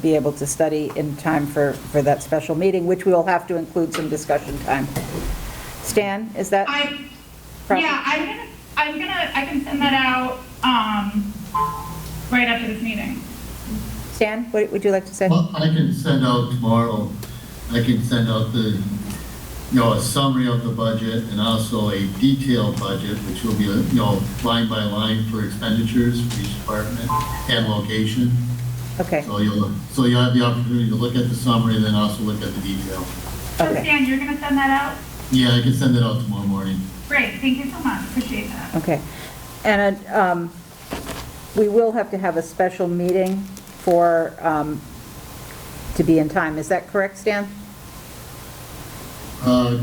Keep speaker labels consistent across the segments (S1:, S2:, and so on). S1: be able to study in time for, for that special meeting, which we will have to include some discussion time. Stan, is that?
S2: I,
S1: proper?
S2: yeah, I'm gonna, I'm gonna, I can send that out, um, right after this meeting.
S1: Stan, what would you like to say?
S3: Well, I can send out tomorrow, I can send out the, you know, a summary of the budget and also a detailed budget, which will be, you know, line by line for expenditures for each department and location.
S1: Okay,
S3: So you'll, so you'll have the opportunity to look at the summary and then also look at the detail.
S2: So
S1: Okay.
S2: Stan, you're gonna send that out?
S3: Yeah, I can send it out tomorrow morning.
S2: Great, thank you so much, appreciate that.
S1: okay. And um, we will have to have a special meeting for, um, to be in time. Is that correct, Stan?
S3: Uh,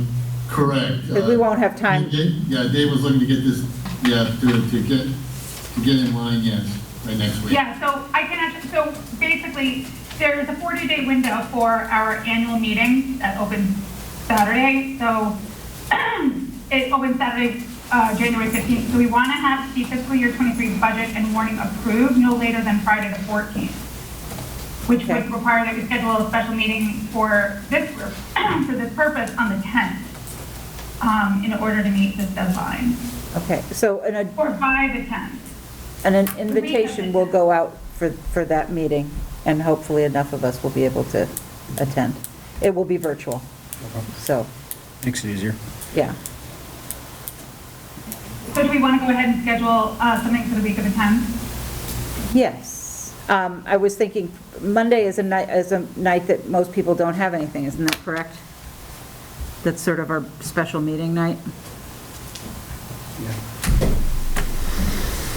S3: Correct.
S1: But we won't have time-
S3: Uh, Yeah, Dave was looking to get this, yeah, to, to get, to get in line, yes, right next week.
S2: Yeah, so I can actually, so basically, there's a 40-day window for our annual meeting that opens Saturday, so it opens Saturday, uh, January 15th. So we want to have the fiscal year 23 budget and warning approved no later than Friday the 14th, which
S1: Okay.
S2: would require that we schedule a special meeting for this group, for this purpose on the 10th, um, in order to meet this deadline,
S1: Okay, so an
S2: or by the 10th.
S1: an an invitation will go out for, for that meeting, and hopefully enough of us will be able to attend. It will be virtual, so,
S4: Makes it easier.
S1: yeah.
S2: So do we want to go ahead and schedule uh, something for the week of the 10th?
S1: Yes. Um, I was thinking, Monday is a night, is a night that most people don't have anything, isn't that correct? That's sort of our special meeting night.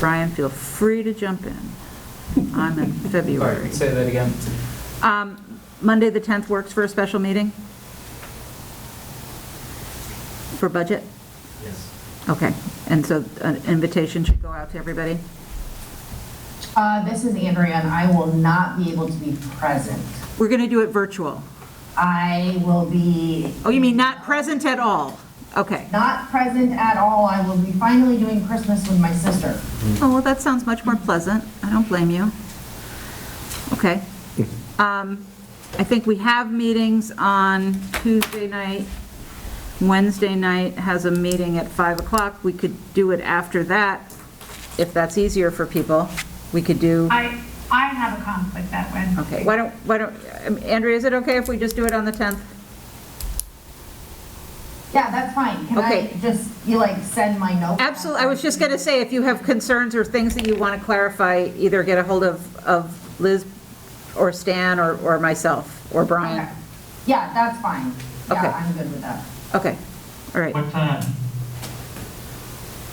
S1: Brian, feel free to jump in. I'm in February.
S5: Sorry, say that again.
S1: Um, Monday, the 10th works for a special meeting? For budget?
S5: Yes.
S1: Okay. And so an invitation should go out to everybody?
S6: Uh, This is Andrea, and I will not be able to be present.
S1: We're going to do it virtual.
S6: I will be
S1: Oh, you mean not present at all? Okay.
S6: not present at all. I will be finally doing Christmas with my sister.
S1: Oh, well, that sounds much more pleasant. I don't blame you. Okay. Um, I think we have meetings on Tuesday night. Wednesday night has a meeting at 5 o'clock. We could do it after that, if that's easier for people. We could do,
S2: I, I have a conflict that Wednesday.
S1: okay, why don't, why don't, um, Andrea, is it okay if we just do it on the 10th?
S6: Yeah, that's fine. Can I
S1: Okay.
S6: just, you like, send my note?
S1: Absolutely, I was just going to say, if you have concerns or things that you want to clarify, either get a hold of, of Liz or Stan or, or myself, or Brian.
S6: Okay. Yeah, that's fine.
S1: Okay.
S6: Yeah, I'm good with that.
S1: Okay, all right.
S5: What time?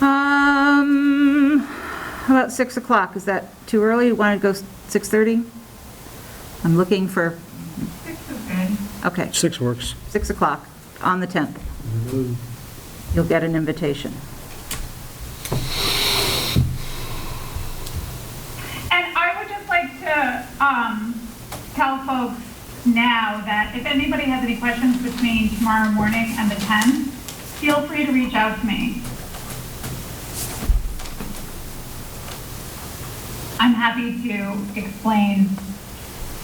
S1: Um, how about 6 o'clock? Is that too early? You want to go s- 6:30? I'm looking for,
S2: Six is good.
S1: okay,
S4: Six works.
S1: 6 o'clock on the 10th. You'll get an invitation.
S2: And I would just like to um, tell folks now that if anybody has any questions between tomorrow morning and the 10th, feel free to reach out to me. I'm happy to explain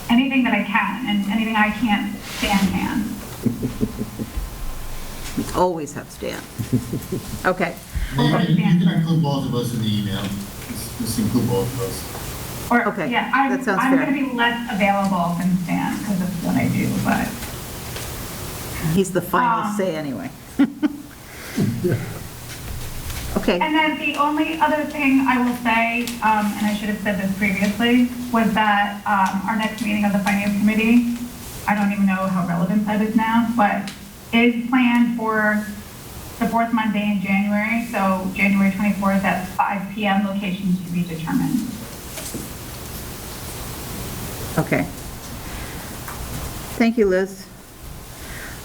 S2: anything that I can and anything I can't, Stan can.
S1: We always have Stan. Okay,
S3: You
S2: Okay.
S3: can you can include both of us in the email. Just- Just include both of us.
S2: Or,
S1: Okay,
S2: yeah, I'm,
S1: that sounds
S2: I'm
S1: fair.
S2: going to be less available than Stan because of what I do, but
S1: he's the final
S6: Ah.
S2: Um.
S1: say anyway. Okay.
S2: And then the only other thing I will say, um, and I should have said this previously, was that, um, our next meeting of the finance committee, I don't even know how relevant that is now, but is planned for the fourth Monday in January, so January 24th at 5 PM, location to be determined.
S1: Okay. Thank you, Liz.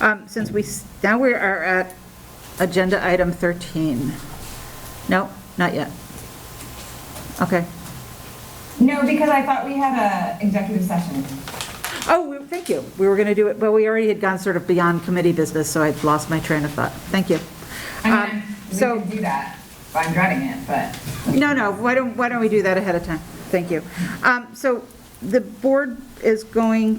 S1: Um, Since we, s- now we are at agenda item 13. No, not yet. Okay.
S6: No, because I thought we had a executive session.
S1: Oh, we- thank you. We were going to do it, but we already had gone sort of beyond committee business, so I'd lost my train of thought. Thank you.
S6: I
S1: Um,
S6: mean, we
S1: so-
S6: could do that. I'm dreading it, but.
S1: No, no, why don't, why don't we do that ahead of time? Thank you. Um, So the board is going